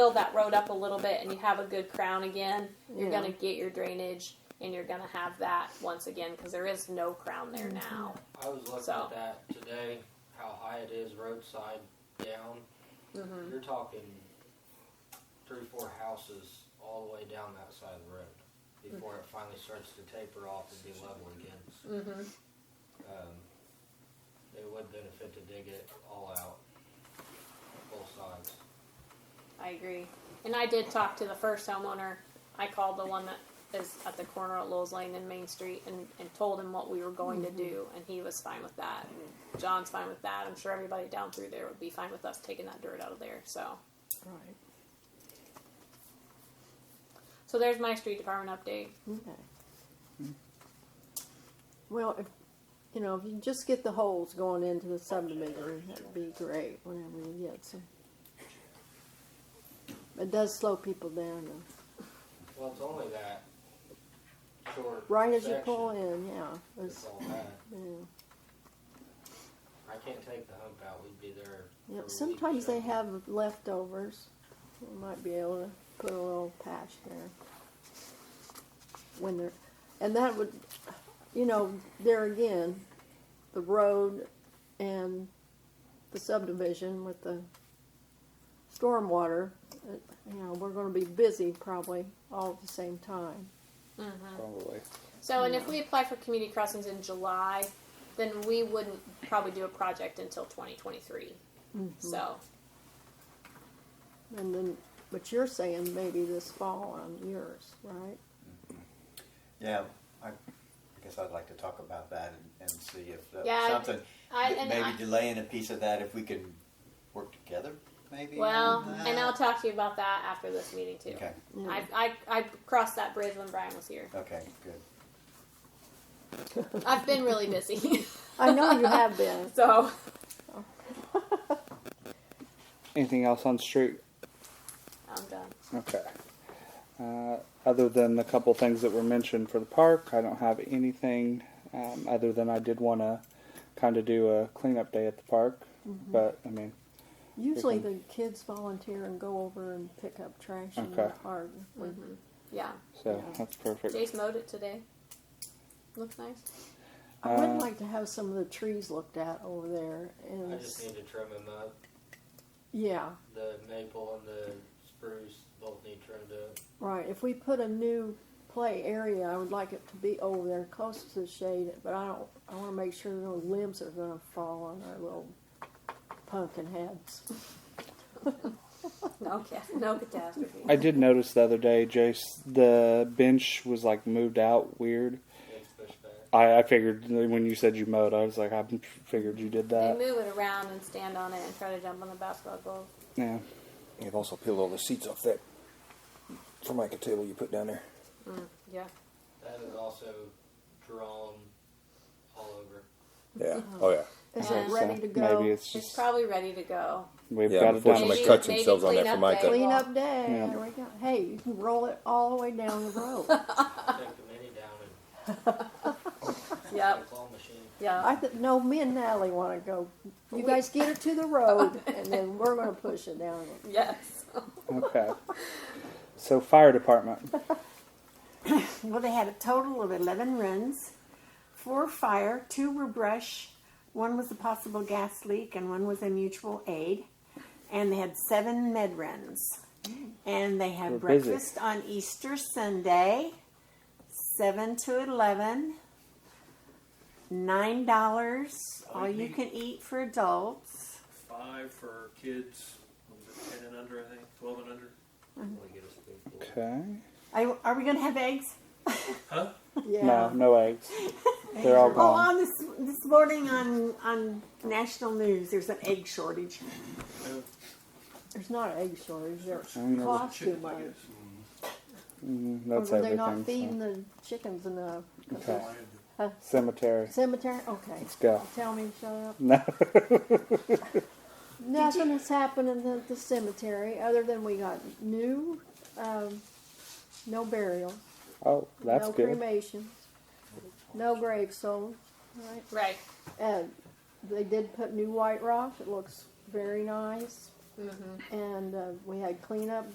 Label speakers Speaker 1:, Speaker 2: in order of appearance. Speaker 1: fill that road up a little bit and you have a good crown again, you're
Speaker 2: Yeah.
Speaker 1: going to get your drainage and you're going to have that once again because there is no crown there now.
Speaker 3: I was looking
Speaker 1: So.
Speaker 3: at that today, how high it is roadside down.
Speaker 1: Mm-hmm.
Speaker 3: You're talking three, four houses all the way down that side of the road before it finally starts to taper off and be level again.
Speaker 1: Mm-hmm.
Speaker 3: Um, it would benefit to dig it all out, both sides.
Speaker 1: I agree. And I did talk to the first homeowner. I called the one that is at the corner of Lowell's Lane and Main Street and, and told him what we were going to do, and he was fine with that. John's fine with that. I'm sure everybody down through there would be fine with us taking that dirt out of there. So,
Speaker 2: Right.
Speaker 1: so there's my street department update.
Speaker 2: Okay. Well, if, you know, if you just get the holes going into the subdivision, that'd be great whenever you get some. It does slow people down though.
Speaker 3: Well, it's only that short
Speaker 2: Right as you
Speaker 3: section.
Speaker 2: pull in, yeah.
Speaker 3: It's
Speaker 2: It's,
Speaker 3: all bad.
Speaker 2: yeah.
Speaker 3: I can't take the hump out. We'd be there. for a
Speaker 2: Yep,
Speaker 3: week,
Speaker 2: sometimes
Speaker 3: so.
Speaker 2: they have leftovers. We might be able to put a little patch there. When they're, and that would, you know, there again, the road and the subdivision with the stormwater, it- you know, we're gonna be busy probably all at the same time.
Speaker 4: Probably.
Speaker 1: So, and if we apply for community crossings in July, then we wouldn't probably do a project until 2023. So,
Speaker 2: And then, but you're saying maybe this fall on yours, right?
Speaker 4: Yeah, I, I guess I'd like to talk about that and, and see if that,
Speaker 1: Yeah, I-
Speaker 4: something
Speaker 1: I, and
Speaker 4: maybe
Speaker 1: I-
Speaker 4: delaying a piece of that if we can work together. Maybe.
Speaker 1: well,
Speaker 4: on that.
Speaker 1: and I'll talk to you about that after this meeting too.
Speaker 4: Okay.
Speaker 1: I, I, I crossed that bridge when Brian was here.
Speaker 4: Okay. Good.
Speaker 1: I've been really busy.
Speaker 2: I know you have been.
Speaker 1: so,
Speaker 5: Anything else on street?
Speaker 1: I'm done.
Speaker 5: Okay. Uh, other than the couple things that were mentioned for the park, I don't have anything um, other than I did want to kind of do a cleanup day at the park.
Speaker 2: Mm-hmm.
Speaker 5: But I mean,
Speaker 2: Usually the kids volunteer and go over and pick up trash in the
Speaker 5: Okay.
Speaker 2: park. We-
Speaker 1: Yeah.
Speaker 5: so
Speaker 2: Yeah.
Speaker 5: that's perfect.
Speaker 1: Jace mowed it today. Looks nice.
Speaker 2: I would
Speaker 5: Uh,
Speaker 2: like to have some of the trees looked at over there and,
Speaker 3: I just need to trim them up.
Speaker 2: yeah,
Speaker 3: The maple and the spruce both need trimmed up.
Speaker 2: right. If we put a new play area, I would like it to be over there close to the shade, but I don't, I wanna make sure no limbs are gonna fall on our little pumpkin heads.
Speaker 1: No, ca- no catastrophe.
Speaker 5: I did notice the other day, Jace, the bench was like moved out weird.
Speaker 3: It's pushed back.
Speaker 5: I, I figured when you said you mowed, I was like, I figured you did
Speaker 1: They
Speaker 5: that.
Speaker 1: move it around and stand on it and try to jump on the basketball goal.
Speaker 5: Yeah.
Speaker 6: They've also peeled all the seats off that formica table you put down there.
Speaker 1: Yeah.
Speaker 3: That is also drawn all over.
Speaker 6: Yeah. Oh yeah.
Speaker 2: Is
Speaker 1: Yeah.
Speaker 2: it ready to
Speaker 5: So
Speaker 2: go?
Speaker 5: Maybe it's
Speaker 1: It's
Speaker 5: just
Speaker 1: probably ready to go.
Speaker 5: we've
Speaker 6: Yeah,
Speaker 5: got it done.
Speaker 6: unfortunately-
Speaker 1: Maybe-
Speaker 6: cut
Speaker 1: maybe
Speaker 6: themselves on that
Speaker 1: clean up
Speaker 6: Formica.
Speaker 1: day.
Speaker 2: Clean up day,
Speaker 5: Yeah.
Speaker 2: there we go. Hey, you can roll it all the way down the road.
Speaker 3: Take the mini down and
Speaker 1: Yep.
Speaker 3: the claw machine.
Speaker 1: Yeah.
Speaker 2: I th- no, me and Natalie want to go. You guys get her to the road, and then we're going to push it down.
Speaker 1: yes.
Speaker 5: Okay. So fire department.
Speaker 7: Well, they had a total of 11 runs four fire, two were brush, one was a possible gas leak, and one was a mutual aid. And they had seven med runs. And they
Speaker 5: We're
Speaker 7: had
Speaker 5: busy.
Speaker 7: breakfast on Easter Sunday, 7 to 11. Nine dollars, all you can eat for adults.
Speaker 8: five for kids, was it ten and under, I think, twelve and under?
Speaker 3: We get a spoonful.
Speaker 5: Okay.
Speaker 7: I, are we gonna have eggs?
Speaker 2: Yeah. uh,
Speaker 5: No, no eggs. They're all
Speaker 7: Oh,
Speaker 5: gone.
Speaker 7: on this this morning on on national news, there's an egg shortage.
Speaker 2: There's not an egg shortage. There
Speaker 5: don't know.
Speaker 2: cost too
Speaker 8: Chicken, I
Speaker 2: much.
Speaker 8: guess.
Speaker 5: Mm,
Speaker 2: Or
Speaker 5: That's
Speaker 2: were they not
Speaker 5: everything.
Speaker 2: feeding the chickens enough?
Speaker 5: so. Okay. Cemetery.
Speaker 2: Cemetery? Okay.
Speaker 5: Let's go.
Speaker 2: Tell me, shut up.
Speaker 5: No.
Speaker 2: Nothing has happened in the, the cemetery other than we got new, um, no burial,
Speaker 5: Oh, that's
Speaker 2: no
Speaker 5: good.
Speaker 2: cremations, no grave sold. Right.
Speaker 1: Right.
Speaker 2: And they did put new white rock. It looks very nice. And uh, we had cleanup